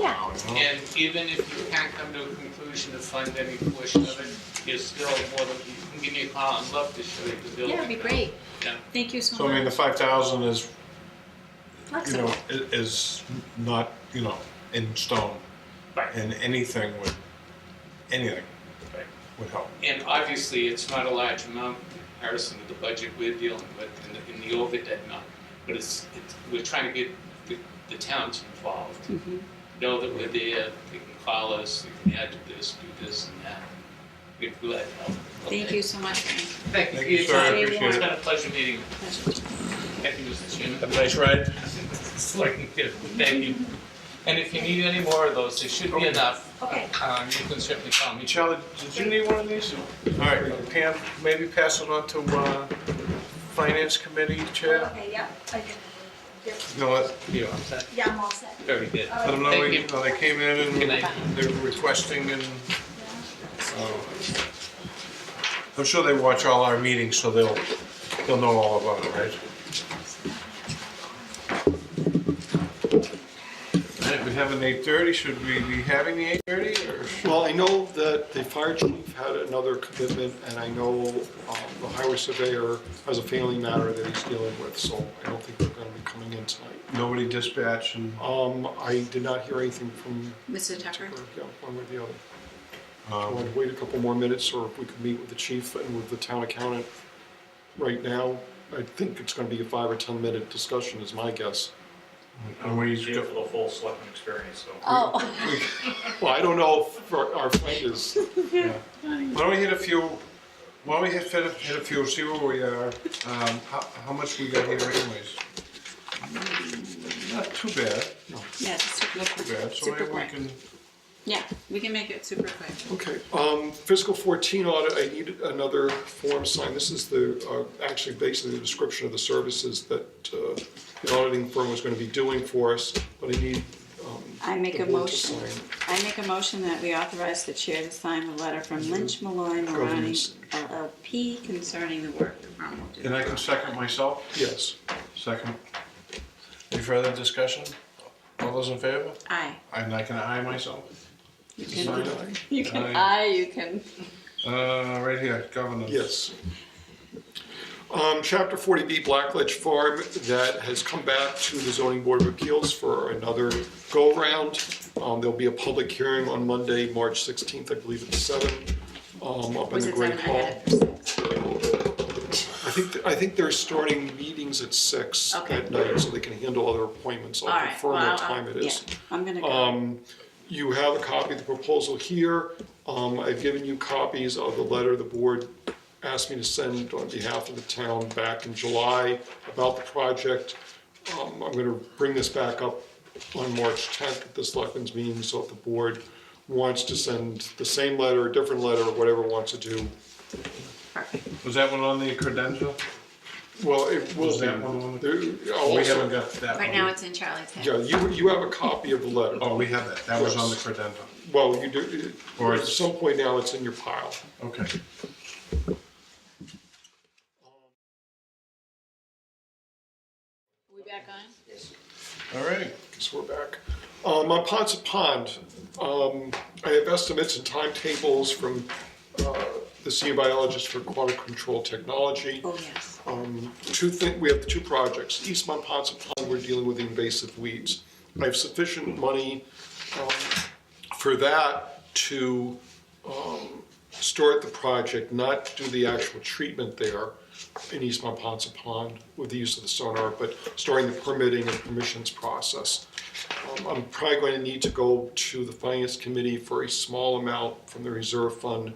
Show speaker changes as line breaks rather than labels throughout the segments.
Yeah.
And even if you can't come to a conclusion to fund any portion of it, you're still more than, you can give me a call, I'd love to show you the building.
Yeah, it'd be great.
Yeah.
Thank you so
So I mean,
much.
the five thousand is, you know,
Flexible.
i- is not, you know, in stone.
Right.
And anything would, anything
Right.
would help.
And obviously, it's not a large amount in comparison to the budget we're dealing with in the, in the overhead amount. But it's, it's, we're trying to get the, the towns involved,
Mhm.
know that we're there, they can call us, they can add to this, do this and that. We're glad to help.
Thank you so much. Frank.
Thank you.
Thank you,
It's
sir. I
been-
appreciate
It's
it.
been a pleasure meeting you.
Pleasure.
Thank you, Mr. Chairman.
Have a nice ride.
It's like, thank you. And if you need any more of those, there should be enough.
Okay.
Um, you can certainly call me.
Charlie, did you need one of these? All right, Pam, maybe pass it on to, uh, Finance Committee Chair?
Okay, yeah, okay. Yep,
You know what,
You're all set.
Yeah, I'm all set.
Very good.
All
let
right.
them know
Thank
we-
you.
uh, they came in
Good
and
night.
they're requesting and, uh, I'm sure they watch all our meetings, so they'll, they'll know all about it, right? All right, we have an eight thirty, should we be having the eight thirty or?
Well, I know that the fire chief had another commitment, and I know um, the highway surveyor has a family matter that he's dealing with, so I don't think they're gonna be coming in tonight.
Nobody dispatch and,
Um, I did not hear anything from
Mr. Tucker?
yeah, one way or the other. I
um,
wanted to wait a couple more minutes, or if we could meet with the chief and with the town accountant right now. I think it's gonna be a five or 10-minute discussion, is my guess.
and we,
Here for the full selectman experience, so.
Oh,
Well, I don't know if our our friend is,
why don't we hit a few, why don't we hit, hit a- hit a few, see where we are, um, how, how much we got here anyways? Not too bad,
yeah, it's super
too bad,
quick.
so
Super
maybe we
quick.
can.
Yeah, we can make it super quick.
Okay, um, fiscal fourteen audit, I need another form signed. This is the, uh, actually basically the description of the services that, uh, the auditing firm was gonna be doing for us, but I need, um.
I make
the
a
board to
motion,
sign.
I make a motion that we authorize the chair to sign the letter from
Mm-hmm.
Lynch Malloy Marani LLP uh, concerning the work that Ron will do.
And I can second myself?
Yes.
Second. Any further discussion? All those in favor?
Aye.
And I can aye myself.
You
Sign
can,
it.
you can,
Aye.
aye, you can.
Uh, right here, governance.
Yes. Um, chapter forty B Blackledge Farm, that has come back to the zoning board of appeals for another go-round. Um, there'll be a public hearing on Monday, March sixteenth, I believe at seven, um, up in
Was
the
it
Great
seven? I
Hall.
had it.
I think, I think they're starting meetings at six
Okay.
at night, so they can handle other appointments.
All
I'll
right,
confirm
well,
what
I'll-
time it is.
yeah, I'm gonna
Um,
go.
You have a copy of the proposal here. Um, I've given you copies of the letter the board asked me to send on behalf of the town back in July about the project. Um, I'm gonna bring this back up on March tenth at the selectmen's meeting, so if the board wants to send the same letter, a different letter, or whatever it wants to do,
Perfect.
Was that one on the credential?
well, it will
Was
be.
that one on the-
There- I'll
We
also-
haven't got that one.
Right now, it's in Charlie's
Yeah,
head.
you, you have a copy of the letter.
Oh, we have that. That was on the
Yes.
credential.
Well, you do,
Or
at
it's-
some point now, it's in your pile.
Okay.
We back on?
All right.
Guess we're back. Um, on Ponset Pond, um, I have estimates and timetables from, uh, the sea biologist for aquatic control technology.
Oh, yes.
Um, two thing, we have two projects. Eastmont Ponce Pond, we're dealing with invasive weeds. I have sufficient money, um, for that to, um, start the project, not do the actual treatment there in Eastmont Ponce Pond with the use of the sonar, but starting the permitting and permissions process. Um, I'm probably going to need to go to the finance committee for a small amount from the reserve fund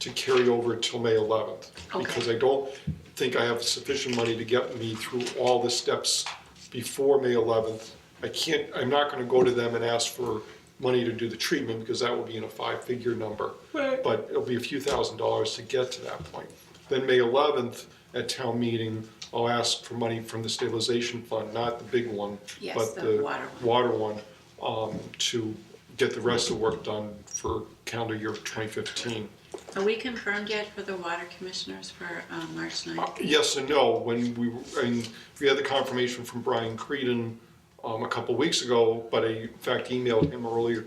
to carry over till May eleventh.
Okay.
Because I don't think I have sufficient money to get me through all the steps before May eleventh. I can't, I'm not gonna go to them and ask for money to do the treatment, because that will be in a five-figure number. But it'll be a few thousand dollars to get to that point. Then May eleventh, at town meeting, I'll ask for money from the stabilization fund, not the big one,
Yes,
but
the
the
water
water one, um, to get the rest of the work done for calendar year twenty fifteen.
Are we confirmed yet for the water commissioners for um, March 9th?
Yes and no, when we, were- and we had the confirmation from Brian Creedon, um, a couple weeks ago, but I, in fact, emailed him earlier